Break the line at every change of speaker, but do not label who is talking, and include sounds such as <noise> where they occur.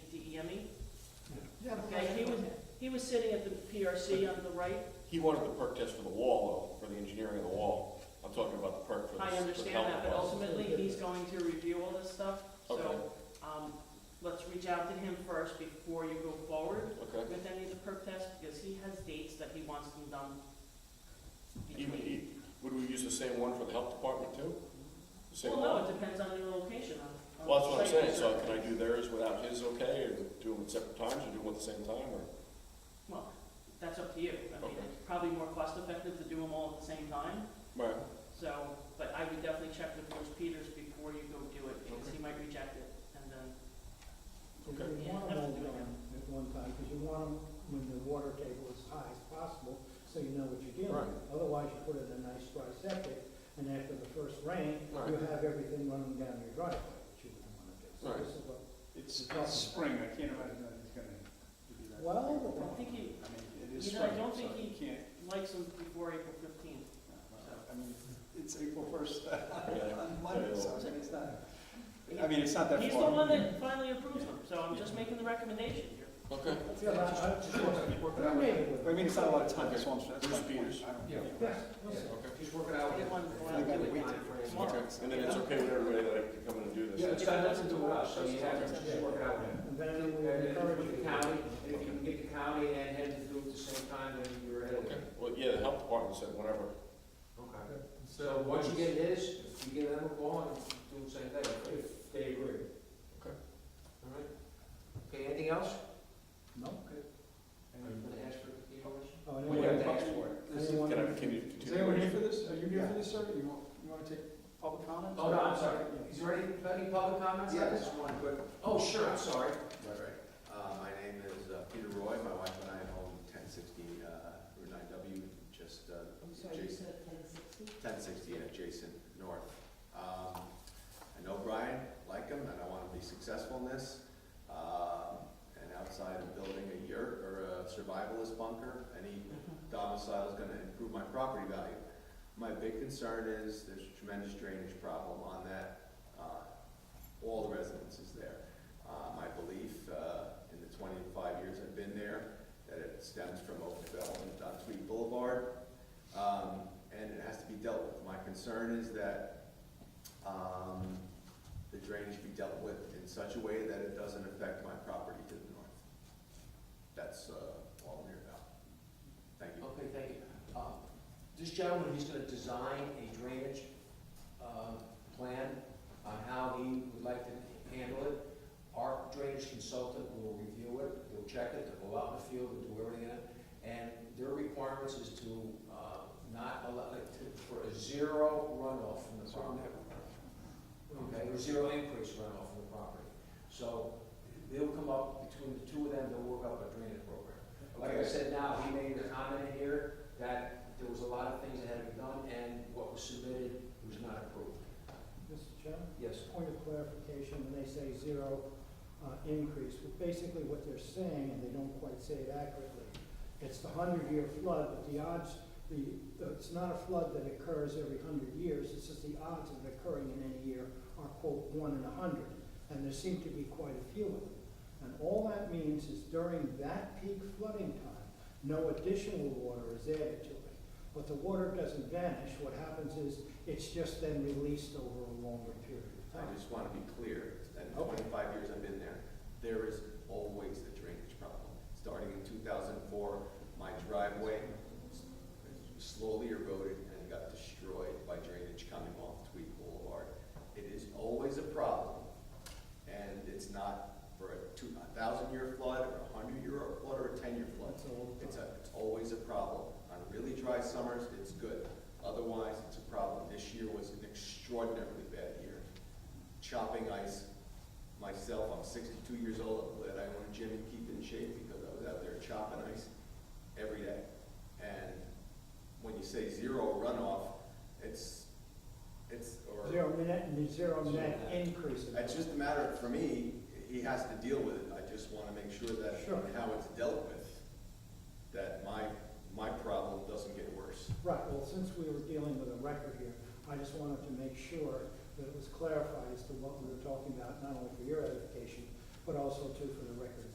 Jimmy.
Yeah, but-
Okay, he was, he was sitting at the PRC on the right.
He wanted the perk test for the wall, though, for the engineering of the wall. I'm talking about the perk for the.
I
for the
understand
health
that, but
department.
ultimately, he's going to review all this stuff.
Okay,
So, um, let's reach out to him first before you go forward
okay.
with any of the perk tests, because he has dates that he wants them done.
Even,
between-
e- would we use the same one for the health department too? The Same
Well,
one?
no, it depends on your location. on- on
Well, that's what I'm
site
saying, so
visit.
can I do theirs without his okay, or do them at separate times, or do them at the same time, or?
Well, that's up to you. I mean,
Okay.
it's probably more cost effective to do them all at the same time,
Right,
so, but I would definitely check with Bruce Peters before you go do it, because he might reject it, and then,
okay.
You want them all down at one time, because you want them when the water table is high as possible, so you know what you're dealing with. Otherwise, you put in a nice dry septic, and after the first rain, you
Right.
have everything running down your driveway, which you wouldn't want to do. So
Right.
this is what-
It's, it's spring, I can't imagine that he's gonna do that.
Well,
I think he
I mean, it is
You know,
spring,
I don't
so
think
you can't,
likes them before April fifteenth.
well, I mean, it's April
<laughs>
first
Yeah.
<laughs> on Monday, so I mean, it's not, I mean, it's not that far.
He's the one that finally approves them, so I'm just making the recommendation here.
Okay.
Yeah, I- I just want to work it out.
But I mean, it's not a lot of time, that's one, that's my
Bruce Peters.
point. I don't-
Yeah.
Yes, yes.
Okay.
Just working out.
Get one
if
going.
they
I gotta
do
wait
it
till-
timeframe.
Tomorrow.
Okay, and then it's okay with everybody that I can come in and do this?
Yeah, it's not, nothing to rush, so you have to just work it out.
And then we
And
will
then if you
encourage
get
you.
the county, if you can get the county and head to do it at the same time, then you're ahead of
Okay,
it.
well, yeah, the health department said whatever.
Okay. So once you get his, you give them a call and do the same thing, if they agree.
Okay.
All right. Okay, anything else?
No?
Anyone gonna ask for the question?
Oh, and
Well, you have
anyway,
to ask for it.
This is-
anyone-
Can I, can you?
Is anyone here for this? Are you here for this, sir? You want, you wanna take public comment?
Oh, no, I'm sorry. Is there any, any public comments?
Yeah, just one quick,
Oh, sure, I'm sorry.
right, right. Uh, my name is uh, Peter Roy, my wife and I own ten sixty, uh, Route nine W, just, uh, adjacent, ten sixty, yeah, adjacent north. Um, I know Brian, like him, and I wanna be successful in this. Uh, and outside of building a yurt or a survivalist bunker, any domicile is gonna improve my property value. My big concern is there's a tremendous drainage problem on that, uh, all the residences there. Uh, my belief, uh, in the twenty-five years I've been there, that it stems from overdevelopment on Tweed Boulevard, um, and it has to be dealt with. My concern is that, um, the drainage be dealt with in such a way that it doesn't affect my property to the north. That's, uh, all I'm here about. Thank you.
Okay, thank you. Uh, This gentleman, he's gonna design a drainage uh, plan on how he would like to handle it. Our drainage consultant will review it, he'll check it, they'll go out in the field and do everything in it. And their requirements is to uh, not allow, like, to- for a zero runoff from the property. Okay, or zero increase runoff from the property. So they'll come up, between the two of them, they'll work up a drainage program. Like I said now, he made a comment in here that there was a lot of things that had to be done, and what was submitted was not approved.
Mr. Chairman?
Yes.
point of clarification, when they say zero uh, increase, well, basically what they're saying, and they don't quite say it accurately, it's the hundred-year flood, but the odds, the, it's not a flood that occurs every hundred years, it's just the odds of it occurring in any year are quote, one in a hundred, and there seem to be quite a few of them. And all that means is during that peak flooding time, no additional water is added to it. But the water doesn't vanish, what happens is it's just then released over a longer period of
I
time.
just want to be clear, that in
Okay.
twenty-five years I've been there, there is always the drainage problem. Starting in two thousand and four, my driveway slowly eroded and got destroyed by drainage coming off Tweed Boulevard. It is always a problem, and it's not for a two, a thousand-year flood, or a hundred-year flood, or a ten-year flood.
That's all the
It's
time.
a, it's always a problem. On really dry summers, it's good. Otherwise, it's a problem. This year was an extraordinarily bad year. Chopping ice, myself, I'm sixty-two years old, I'm glad I own a gym and keep in shape because I was out there chopping ice every day. And when you say zero runoff, it's, it's, or.
Zero net, zero net
Zero net.
increase. in
It's just a matter, of- for me, he has to deal with it, I just wanna make sure that
Sure.
how it's dealt with, that my, my problem doesn't get worse.
Right, well, since we were dealing with a record here, I just wanted to make sure that it was clarified as to what we were talking about, not only for your edification, but also too for the record